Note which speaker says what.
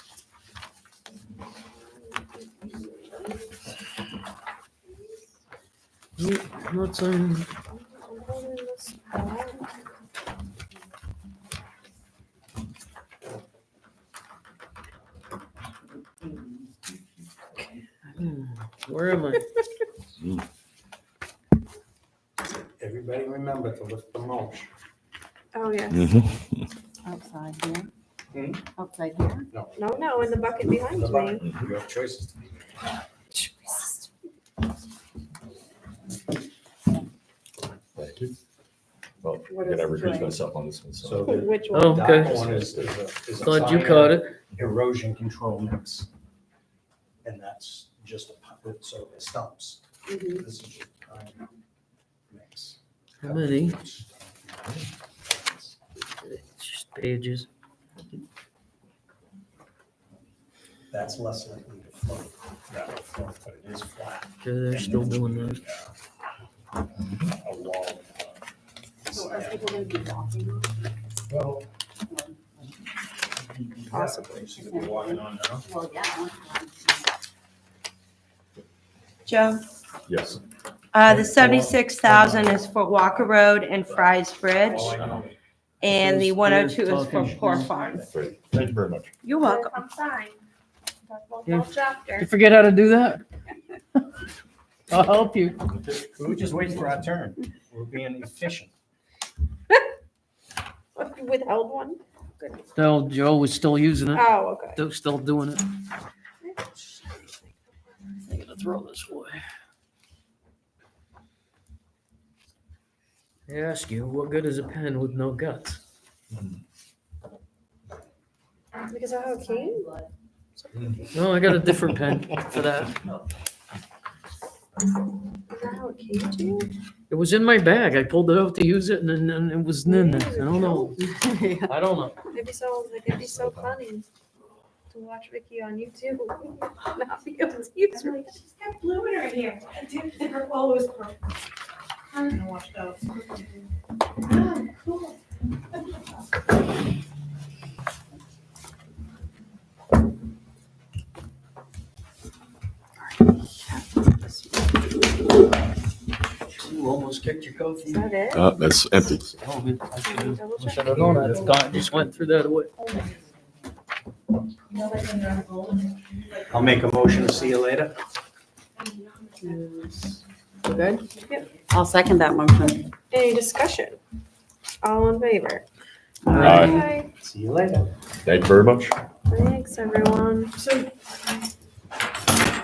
Speaker 1: Nope, Not saying, where am I?
Speaker 2: Everybody remember to lift the mulch.
Speaker 3: Oh, yeah.
Speaker 4: Outside here?
Speaker 2: Hmm?
Speaker 4: Outside here?
Speaker 3: No, no, in the bucket behind
Speaker 2: The
Speaker 3: me.
Speaker 2: button. You have choices to make.
Speaker 5: Thank you. Well,
Speaker 3: What
Speaker 5: I
Speaker 3: is
Speaker 5: gotta recuse
Speaker 3: the
Speaker 5: myself on this one,
Speaker 2: So
Speaker 5: so.
Speaker 2: the
Speaker 3: Which
Speaker 1: Oh,
Speaker 3: one?
Speaker 1: okay.
Speaker 2: dark one is, is a. is a
Speaker 1: Thought you
Speaker 2: fire
Speaker 1: caught it.
Speaker 2: Erosion control mix. And that's just a puppet, so it stumps.
Speaker 3: Mhm.
Speaker 2: This is just pine mix.
Speaker 1: How many? It's just Pages.
Speaker 2: That's less likely to float. That will float, but it is flat.
Speaker 1: Yeah, they're still doing those.
Speaker 2: A wall.
Speaker 3: So are people gonna be walking on it?
Speaker 2: Well.
Speaker 3: Possibly.
Speaker 2: She's gonna be walking on now.
Speaker 4: Well, yeah.
Speaker 6: Joe,
Speaker 5: Yes.
Speaker 6: uh, the seventy-six thousand is for Walker Road and Fry's Bridge,
Speaker 2: All I know is
Speaker 6: and the
Speaker 1: Who's-
Speaker 6: one oh two is
Speaker 1: who's
Speaker 6: for
Speaker 1: talking?
Speaker 6: Poor Farms.
Speaker 5: Great. Thank you very much.
Speaker 6: You're welcome.
Speaker 3: I'm fine. Talk about
Speaker 1: Yeah.
Speaker 3: the chapter.
Speaker 7: You forget how to do that? I'll help you.
Speaker 2: We were just waiting for our turn. We're being efficient.
Speaker 3: You Withheld one? Goodness.
Speaker 7: No, Joe was still using it,
Speaker 3: Oh, okay.
Speaker 7: still- still doing it. I'm gonna throw this away.
Speaker 1: I ask you, what good is a pen with no guts?
Speaker 3: Because of how keen?
Speaker 1: No, I got a different pen for that.
Speaker 3: Is that how it came to you?
Speaker 1: It was in my bag. I pulled it out to use it and then and it was in there. I don't know. I don't know.
Speaker 3: It'd be so, like, it'd be so funny to watch Vicky on YouTube. Not be able to use her.
Speaker 8: She's got blue in her hair. I didn't think her wall was purple. I'm gonna watch those. Oh, cool.
Speaker 2: You almost kicked your
Speaker 3: Is
Speaker 2: coffee.
Speaker 3: that it?
Speaker 5: Uh, that's empty.
Speaker 3: Double
Speaker 1: I
Speaker 3: check.
Speaker 1: should have known that. It's gone. Just went through that away.
Speaker 2: I'll make a motion. See you later.
Speaker 4: We're good?
Speaker 3: Yep.
Speaker 4: I'll second that motion.
Speaker 3: Any discussion? All in favor?
Speaker 5: Aye.
Speaker 3: Aye.
Speaker 2: See you later.
Speaker 5: Thank you very much.
Speaker 3: Thanks, everyone.
Speaker 8: So